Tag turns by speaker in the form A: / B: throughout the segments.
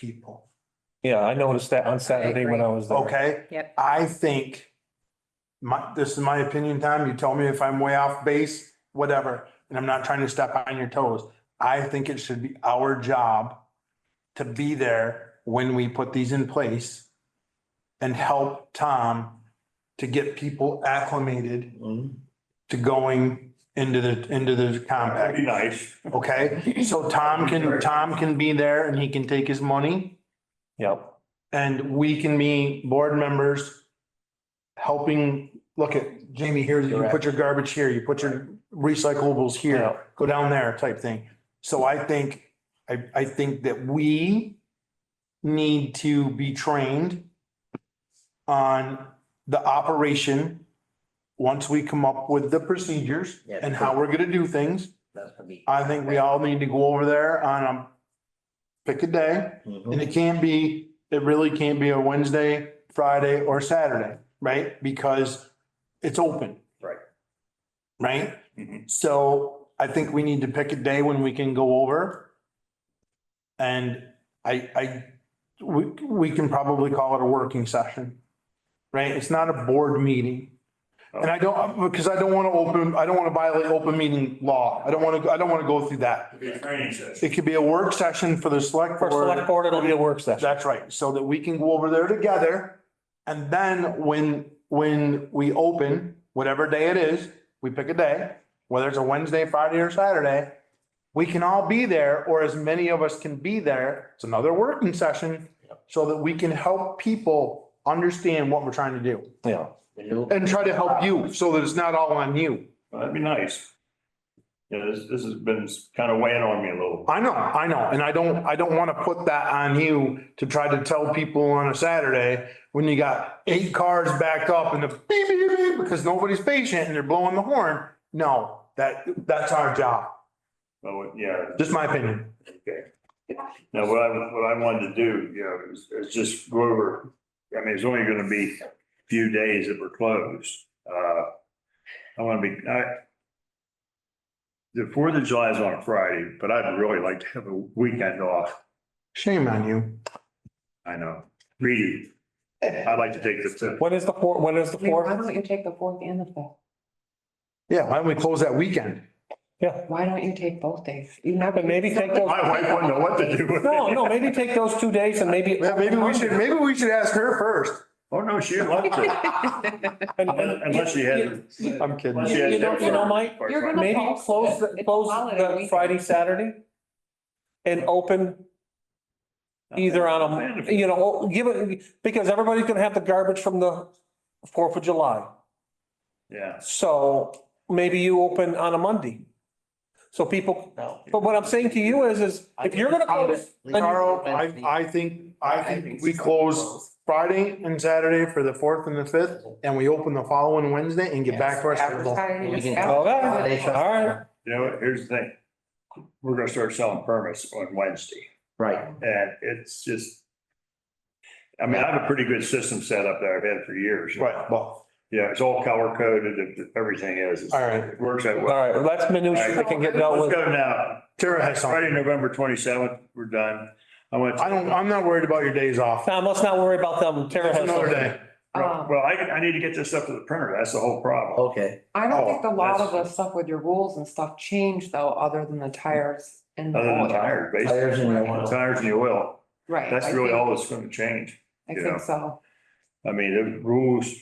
A: people,
B: Yeah, I noticed that on Saturday when I was there.
A: okay?
C: Yep.
A: I think, my, this is my opinion, Tom, you tell me if I'm way off base, whatever, and I'm not trying to step on your toes. I think it should be our job to be there when we put these in place and help Tom to get people acclimated to going into the, into the
D: That'd
A: compact.
D: be nice.
A: Okay, so Tom can, Tom can be there and he can take his money
B: Yep,
A: and we can be board members. Helping, look at Jamie here, you put your garbage here, you put your recyclables
B: Yeah.
A: here, go down there type thing. So I think, I, I think that we need to be trained on the operation. Once we come up with the procedures
E: Yeah.
A: and how we're gonna do things.
E: That's gonna be.
A: I think we all need to go over there on a, pick a day,
E: Mhm.
A: and it can't be, it really can't be a Wednesday, Friday, or Saturday, right? Because it's open.
E: Right.
A: Right?
B: Mm-hmm.
D: Mhm.
A: So I think we need to pick a day when we can go over. And I, I, we, we can probably call it a working session. Right? It's not a board meeting.
B: Oh.
A: And I don't, because I don't want to open, I don't want to violate open meeting law. I don't want to, I don't want to go through that.
D: It'd be a training session.
A: It could be a work session for the select
B: for select
A: board.
B: board, it'll be a work session.
A: That's right. So that we can go over there together. And then when, when we open, whatever day it is, we pick a day, whether it's a Wednesday, Friday or Saturday. We can all be there or as many of us can be there. It's another working session so that we can help people understand what we're trying to do
B: Yeah,
E: The new-
A: and try to help you so that it's not all on you.
D: That'd be nice. Yeah, this, this has been kind of weighing on me a little.
A: I know, I know, and I don't, I don't want to put that on you to try to tell people on a Saturday when you got eight cars backed up and the beep, beep, beep, because nobody's patient and they're blowing the horn. No, that, that's our job.
D: Oh, yeah.
A: Just my opinion.
D: Okay. Now, what I, what I wanted to do, you know, is, is just go over, I mean, it's only gonna be a few days that we're closed. Uh, I wanna be, I, the Fourth of July is on a Friday, but I'd really like to have a weekend off.
A: Shame on you.
D: I know, really. I'd like to take the fifth.
B: when is the four, when is the
C: I mean, Why don't
B: fourth?
C: you take the fourth and the fifth?
A: Yeah, why don't we close that weekend?
B: Yeah,
C: Why don't you take both days? You never.
B: and maybe take those,
D: My wife wouldn't know what to do with it.
B: no, no, maybe take those two days and maybe.
A: Yeah, Maybe we should, maybe we should ask her first.
D: Oh, no, she'd love to,
B: And- and-
D: unless she had.
A: I'm kidding.
D: unless she had
B: You know- you know, Mike,
C: you're gonna-
B: Maybe
C: Close.
B: close, the-
C: It's a
B: close
C: holiday
B: the
C: weekend.
B: Friday, Saturday. And open either on a, you know, give it, because everybody's gonna have the garbage from the Fourth of July.
D: Yeah.
B: So maybe you open on a Monday. So people, but what I'm saying to you is, is if you're gonna close, then you-
A: Carl, I, I think, I think we close Friday and Saturday for the fourth and the fifth, and we open the following Wednesday and get back to our schedule.
E: We can-
B: Okay.
E: They shut-
B: all right,
D: You know, here's the thing. We're gonna start selling permits on Wednesday
E: Right,
D: and it's just. I mean, I have a pretty good system set up that I've had for years.
A: Right, well,
D: Yeah, it's all color coded and everything is. It's-
A: all right.
D: It works that
B: all
D: way.
B: right, that's minutia that can get dealt
D: Let's
B: with.
D: go now.
A: Tara has something.
D: Friday, November twenty seventh, we're done. I want.
A: I don't, I'm not worried about your days off.
B: Tom, let's not worry about them. Tara
A: That's
B: has
A: another
B: something.
A: day.
C: Um,
D: Well, I, I need to get this up to the printer. That's the whole problem.
E: okay.
C: I don't think a lot
D: Oh,
C: of the
D: that's-
C: stuff with your rules and stuff changed though, other than the tires and. the
D: Other than
C: oil.
D: tires, basically.
E: Tires and the oil.
D: Tires and the oil.
C: Right. I
D: That's really
C: think-
D: all that's gonna change.
C: I
D: yeah.
C: think so.
D: I mean, the rules.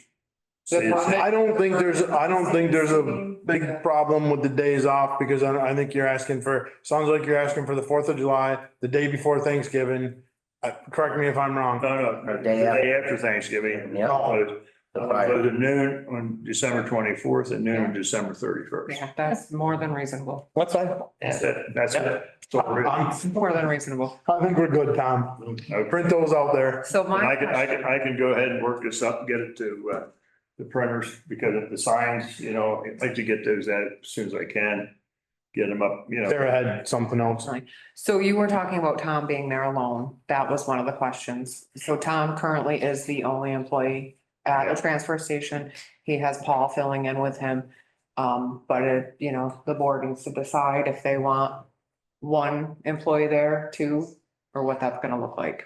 D: say
C: Good
D: it's-
C: luck.
A: I don't think there's, I don't think there's a big problem with the days off because I, I think you're asking for, sounds like you're asking for the Fourth of July, the day before Thanksgiving. Uh, correct me if I'm wrong.
D: No, no, the
E: Day
D: day after Thanksgiving.
E: Yeah.
D: No,
E: The
D: but-
E: Friday.
D: but at noon on December twenty-fourth and noon on December thirty-first.
C: Yeah, that's more than reasonable.
B: That's fine.
D: That's it. That's it. So we're-
A: I'm-
C: More than reasonable.
A: I think we're good, Tom.
D: Okay.
A: Print those out there.
C: So
D: And I
C: my
D: can, I can,
C: question,
D: I can go ahead and work this up, and get it to, uh, the printers because of the signs, you know, I'd like to get those out as soon as I can. Get them up, you know.
A: Sarah had something else.
C: so you were talking about Tom being there alone. That was one of the questions. So Tom currently is the only employee at the transfer station. He has Paul filling in with him. Um, but it, you know, the board needs to decide if they want one employee there, two, or what that's gonna look like.